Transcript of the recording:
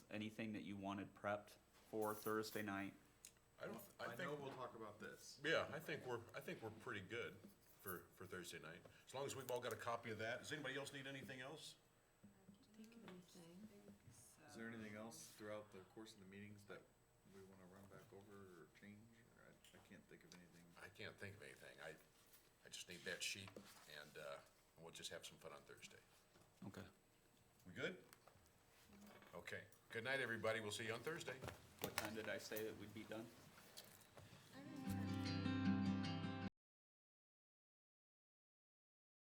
anything that you wanted prepped for Thursday night? I don't, I I think, know we'll talk about this. yeah, I think we're, I think we're pretty good for, for Thursday night. As long as we've all got a copy of that. Does anybody else need anything else? Is there anything else throughout the course of the meetings that we wanna run back over or change? Or I, I can't think of anything. I can't think of anything. I, I just need that sheet and, uh, we'll just have some fun on Thursday. Okay. We good? Okay. Good night, everybody. We'll see you on Thursday. What time did I say that we'd be done?